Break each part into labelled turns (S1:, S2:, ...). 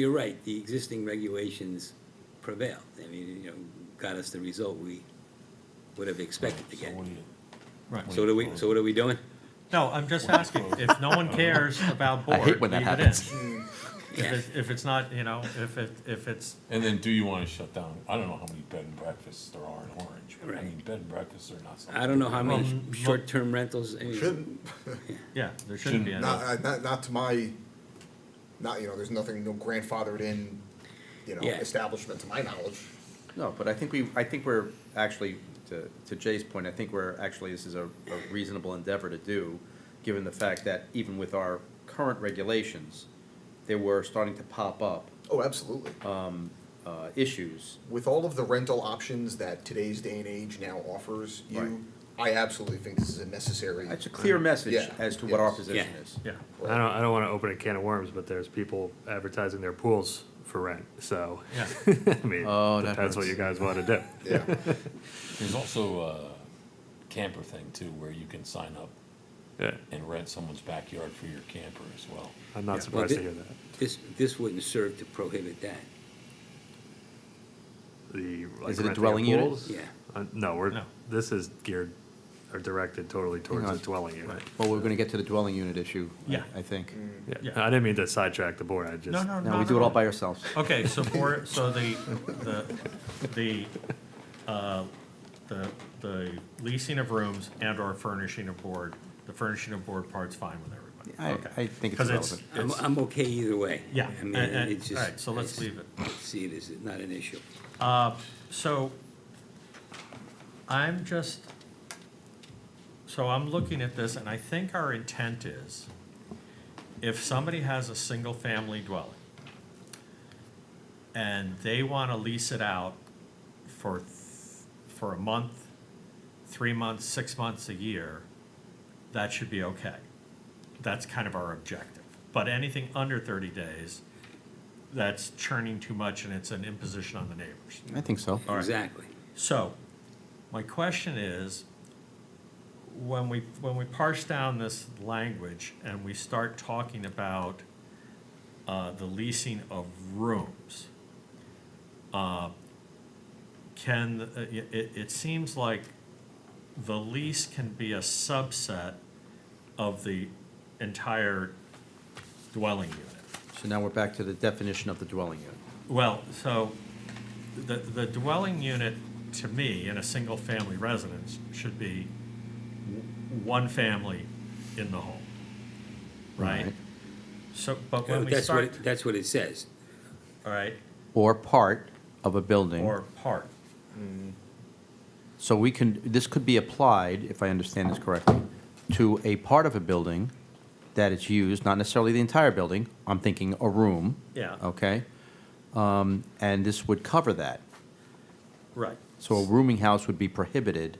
S1: You're right, the existing regulations prevailed. I mean, you know, got us the result we would have expected to get.
S2: Right.
S1: So what are we, so what are we doing?
S2: No, I'm just asking, if no one cares about board,
S3: I hate when that
S2: leave it in.
S3: happens.
S2: If it's, if it's not, you know, if it, if it's,
S4: And then do you wanna shut down, I don't know how many bed and breakfasts there are in Orange, but I
S1: Right.
S4: mean, bed and breakfasts are not something.
S1: I don't know how many
S2: Um,
S1: short-term rentals. I mean,
S5: Shouldn't,
S2: yeah, there shouldn't be any.
S5: not, uh, not, not to my, not, you know, there's nothing, no grandfathered in, you know,
S1: Yeah.
S5: establishment to my knowledge.
S3: No, but I think we, I think we're actually, to to Jay's point, I think we're, actually, this is a a reasonable endeavor to do, given the fact that even with our current regulations, there were starting to pop up
S5: Oh, absolutely.
S3: uh, issues.
S5: With all of the rental options that today's day and age now offers you, I absolutely think this is a necessary.
S3: It's a clear message
S5: Yeah,
S3: as to what our
S5: yes.
S3: position
S1: Yeah.
S3: is.
S2: Yeah,
S6: I don't, I don't want to open a can of worms, but there's people advertising their pools for rent, so,
S2: yeah,
S6: I mean,
S3: Oh, that
S6: depends what
S3: hurts.
S6: you guys want to do.
S5: Yeah,
S4: There's also a camper thing too, where you can sign up
S6: Yeah,
S4: and rent someone's backyard for your camper as well.
S6: I'm
S1: Yeah.
S6: not surprised to
S1: Well,
S6: hear
S1: thi-
S6: that.
S1: This, this wouldn't serve to prohibit that.
S6: The, like,
S3: Is it a
S6: renting of
S3: dwelling unit?
S6: pools?
S1: Yeah.
S6: Uh, No, we're,
S2: No.
S6: this is geared, or directed totally towards
S3: on.
S6: a dwelling unit.
S3: Well, we're gonna get to the dwelling unit issue,
S2: I- Yeah.
S3: I think.
S6: Yeah,
S2: Yeah.
S6: I didn't mean to sidetrack the board, I just.
S2: no, no, no.
S3: No, we do it all by ourselves.
S2: Okay, so board, so the, the, the, uh, the, the leasing of rooms and or furnishing of board, the furnishing of board part's fine with
S3: I,
S2: everybody, okay?
S3: I think it's
S2: Because
S3: relevant.
S2: it's,
S1: I'm,
S2: it's,
S1: I'm okay either way.
S2: yeah,
S1: I
S2: and,
S1: mean, it's
S2: and, all
S1: just-
S2: right, so let's
S1: I
S2: leave it.
S1: See it as not an issue.
S2: So I'm just, so I'm looking at this and I think our intent is if somebody has a single-family dwelling and they want to lease it out for, th- for a month, three months, six months, a year, that should be okay. That's kind of our objective. But anything under 30 days, that's churning too much and it's an imposition on the neighbors.
S3: I think so.
S1: Exactly.
S2: So, my question is, when we, when we parse down this language and we start talking about uh, the leasing of rooms, uh, can, uh, it, it- it seems like the lease can be a subset of the entire dwelling unit.
S3: So now we're back to the definition of the dwelling unit.
S2: Well, so the, the dwelling unit, to me, in a single-family residence, should be w- one family in the home, right?
S3: Right.
S2: So, but when we
S1: That's what,
S2: start,
S1: it- that's what it says.
S2: all right,
S3: Or part of a building.
S2: or part,
S3: So we can, this could be applied, if I understand this correctly, to a part of a building that is used, not necessarily the entire building, I'm thinking a room,
S2: yeah,
S3: okay? Um, And this would cover that.
S2: right.
S3: So a rooming house would be prohibited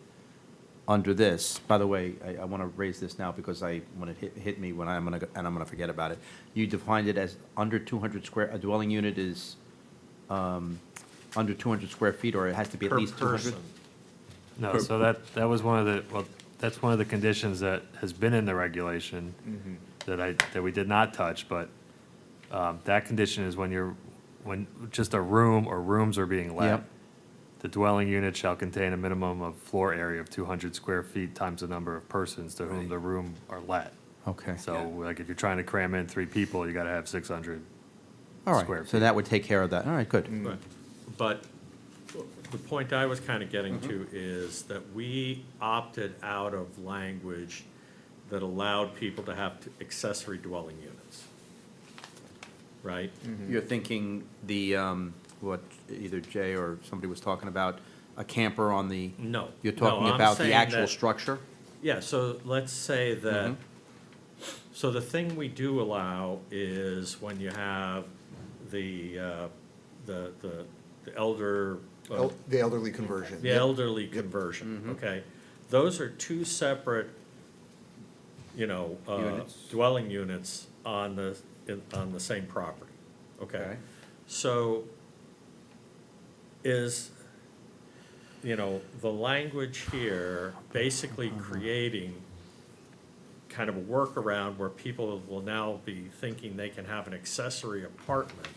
S3: under this. By the way, I, I want to raise this now because I, when it hit, hit me, when I'm going to, and I'm going to forget about it. You defined it as under 200 square, a dwelling unit is um, under 200 square feet, or it has to be at
S2: Per
S3: least 200?
S2: person.
S6: No, so that, that was one of the, well, that's one of the conditions that has been in the regulation that I, that we did not touch, but um, that condition is when you're, when just a room or rooms are being let.
S3: Yep.
S6: The dwelling unit shall contain a minimum of floor area of two hundred square feet times the number of persons to whom the room are let.
S3: Okay,
S6: So like if you're trying to cram in three people, you gotta have six hundred.
S3: all
S6: square
S3: right, so that would take care of that, all right, good.
S2: But- But the point I was kind of getting to
S3: Mm-hmm.
S2: is that we opted out of language that allowed people to have t- accessory dwelling units. Right?
S3: You're thinking the, um, what either Jay or somebody was talking about, a camper on the,
S2: No.
S3: you're
S2: Mm. No,
S3: talking
S2: I'm
S3: about the
S2: saying
S3: actual
S2: that-
S3: structure?
S2: Yeah, so let's say that,
S3: Mhm.
S2: so the thing we do allow is when you have the, uh, the, the the elder. uh,
S5: El- the elderly conversion.
S2: The
S5: Yep. Mm-hmm.
S2: elderly conversion, okay. Those are two separate, you know, uh,
S3: Units.
S2: dwelling units on the, in- on the same property, okay?
S3: Okay.
S2: So is, you know, the language here basically
S5: Uh-huh.
S2: creating kind of a workaround where people will now be thinking they can have an accessory apartment